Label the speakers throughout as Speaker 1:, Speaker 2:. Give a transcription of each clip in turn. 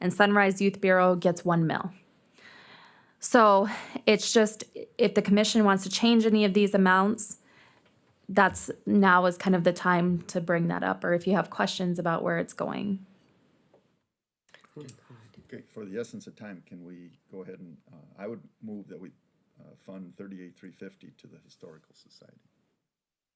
Speaker 1: and Sunrise Youth Bureau gets one mil. So it's just, if the commission wants to change any of these amounts, that's, now is kind of the time to bring that up, or if you have questions about where it's going.
Speaker 2: Okay, for the essence of time, can we go ahead and, uh, I would move that we, uh, fund thirty-eight, three fifty to the Historical Society.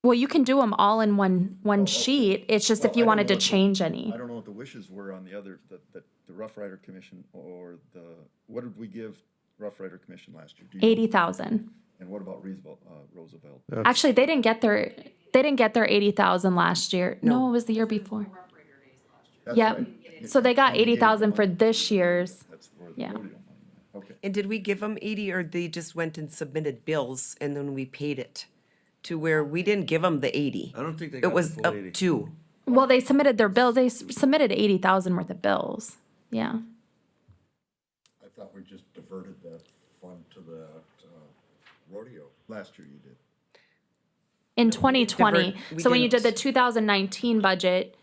Speaker 1: Well, you can do them all in one, one
Speaker 2: okay.
Speaker 1: sheet, it's just if
Speaker 2: Well, I
Speaker 1: you
Speaker 2: don't
Speaker 1: wanted
Speaker 2: know
Speaker 1: to
Speaker 2: what the-
Speaker 1: change any.
Speaker 2: I don't know what the wishes were on the other, the, the, the Rough Rider Commission or the, what did we give Rough Rider Commission last year? Do you-
Speaker 1: Eighty thousand.
Speaker 2: And what about Roosevelt, uh, Roosevelt?
Speaker 1: Actually, they didn't get their, they didn't get their eighty thousand last year. No, it was the year before.
Speaker 2: That's
Speaker 1: Yep.
Speaker 2: right.
Speaker 1: So they got
Speaker 2: You gave
Speaker 1: eighty thousand
Speaker 2: them
Speaker 1: for
Speaker 2: money.
Speaker 1: this year's.
Speaker 2: That's where the
Speaker 1: Yeah.
Speaker 2: rodeo money went. Okay,
Speaker 3: And did we give them eighty or they just went and submitted bills and then we paid it? To where we didn't give them the eighty.
Speaker 4: I don't think they got
Speaker 3: It
Speaker 4: the
Speaker 3: was
Speaker 4: full
Speaker 3: up
Speaker 4: 80.
Speaker 3: to.
Speaker 1: Well, they submitted their bills. They s- submitted eighty thousand worth of bills. Yeah.
Speaker 5: I thought we just diverted that fund to that uh, rodeo.
Speaker 2: last year you did.
Speaker 1: In twenty twenty.
Speaker 3: divert- we
Speaker 1: So when you did
Speaker 3: didn't-
Speaker 1: the two thousand nineteen budget,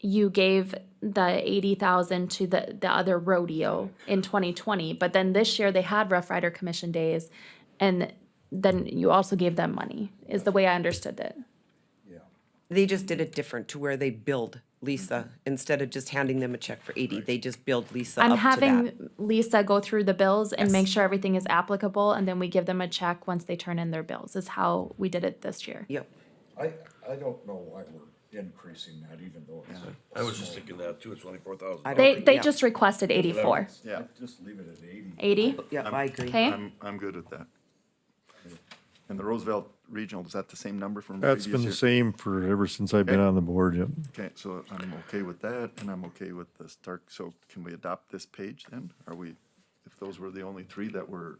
Speaker 1: you gave the eighty thousand to the, the other rodeo in twenty twenty. But then this year they had Rough Rider Commission Days and then you also gave them money, is the way I understood it.
Speaker 5: Yeah.
Speaker 3: They just did it different to where they billed Lisa instead of just handing them a check for eighty. They just billed Lisa
Speaker 1: I'm
Speaker 3: up to that.
Speaker 1: having Lisa go through the bills and make sure everything is applicable, and then we give them a check once they turn in their bills, is how we did it this year.
Speaker 3: Yep.
Speaker 5: I, I don't know why we're increasing that even though it's.
Speaker 4: I was just thinking that too, it's twenty-four thousand.
Speaker 3: I don't
Speaker 1: They,
Speaker 3: think-
Speaker 1: they
Speaker 3: yeah.
Speaker 1: just requested eighty-four,
Speaker 2: Yeah.
Speaker 5: Just leave it at eighty.
Speaker 1: eighty,
Speaker 3: Yep, I agree.
Speaker 1: okay?
Speaker 2: I'm, I'm good with that. And the Roosevelt Regional, is that the same number from previous
Speaker 6: That's
Speaker 2: year?
Speaker 6: been the same for, ever since I've
Speaker 3: Eh.
Speaker 6: been
Speaker 2: Okay.
Speaker 6: on the board, yep.
Speaker 2: Okay, so I'm okay with that, and I'm okay with the Stark, so can we adopt this page then? Are we, if those were the only three that were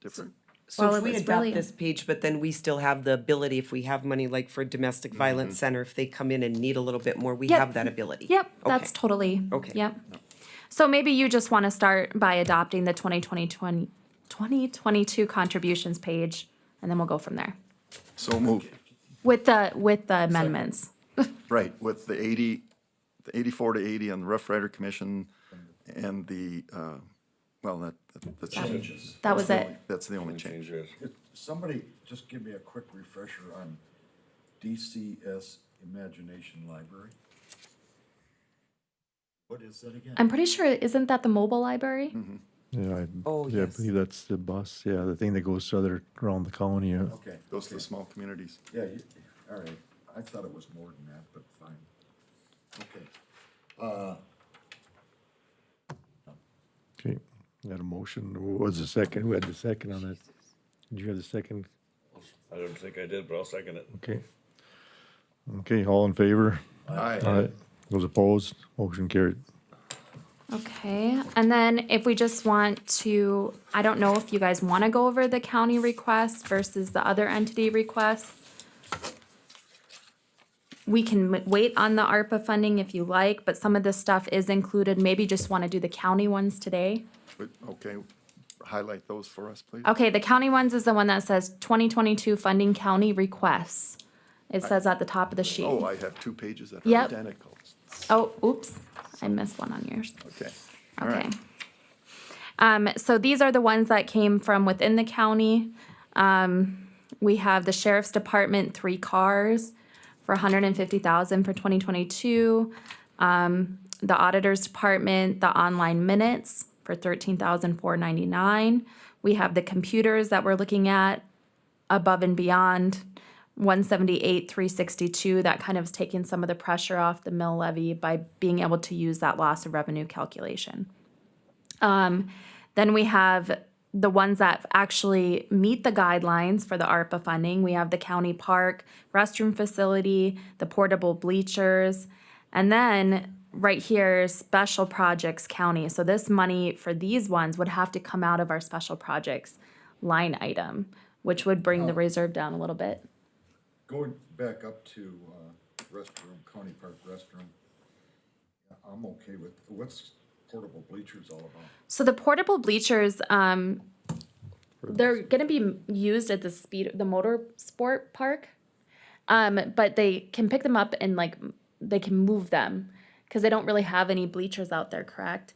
Speaker 2: different?
Speaker 3: So
Speaker 1: Well,
Speaker 3: if we
Speaker 1: it's
Speaker 3: adopt
Speaker 1: really-
Speaker 3: this page, but then we still have the ability, if we have money like for domestic
Speaker 4: Mm-hmm.
Speaker 3: violence center, if they come in and need a little bit more, we
Speaker 1: Yep.
Speaker 3: have that ability.
Speaker 1: Yep, that's
Speaker 3: Okay.
Speaker 1: totally,
Speaker 3: Okay.
Speaker 1: yep. So maybe you just wanna start by adopting the 2020 2022 contributions page, and then we'll go from there,
Speaker 2: So moved.
Speaker 1: with the, with the amendments.
Speaker 2: Right, with the eighty, the eighty-four to eighty on the Rough Rider Commission and the, uh, well, that, that- that's.
Speaker 5: Changes.
Speaker 1: That was it.
Speaker 2: That's the only change.
Speaker 5: Somebody just give me a quick refresher on DCS Imagination Library. What is that again?
Speaker 1: I'm pretty sure, isn't that the mobile library?
Speaker 6: Yeah, I,
Speaker 3: Oh,
Speaker 6: yeah, I
Speaker 3: yes.
Speaker 6: believe that's the bus, yeah, the thing that goes other, around the county, yeah.
Speaker 5: Okay,
Speaker 2: Those are the small communities.
Speaker 5: yeah, you- all right. I thought it was more than that, but fine. Okay.
Speaker 6: Okay, got a motion, who was the second, who had the second on that? Did you have the second?
Speaker 4: I don't think I did, but I'll second it.
Speaker 6: Okay. Okay, all in favor? Aye. Those opposed, motion carried.
Speaker 1: Okay, and then if we just want to, I don't know if you guys want to go over the county request versus the other entity requests. We can m- wait on the ARPA funding if you like, but some of this stuff is included. Maybe just want to do the county ones today.
Speaker 2: But, okay, highlight those for us, please.
Speaker 1: Okay, the county ones is the one that says twenty twenty-two funding county requests. It says at the top of the sheet.
Speaker 2: Oh, I have two pages that are
Speaker 1: Yep.
Speaker 2: identical.
Speaker 1: Oh, oops, I missed one on yours.
Speaker 2: Okay. all right.
Speaker 1: Okay. Um, so these are the ones that came from within the county. Um, we have the sheriff's department, three cars for a hundred and fifty thousand for twenty twenty-two. Um, the auditor's department, the online minutes for thirteen thousand four ninety-nine. We have the computers that we're looking at above and beyond. One seventy-eight, three sixty-two, that kind of is taking some of the pressure off the mill levy by being able to use that loss of revenue calculation. Then we have the ones that actually meet the guidelines for the ARPA funding. We have the county park, restroom facility, the portable bleachers, and then right here, special projects county. So this money for these ones would have to come out of our special projects line item, which would bring the reserve down a little bit.
Speaker 5: Going back up to uh, restroom, County Park restroom, I'm okay with, what's portable bleachers all about?
Speaker 1: So the portable bleachers, um, they're gonna be used at the speed, the motor sport park. Um, but they can pick them up and like, they can move them, cause they don't really have any bleachers out there, correct?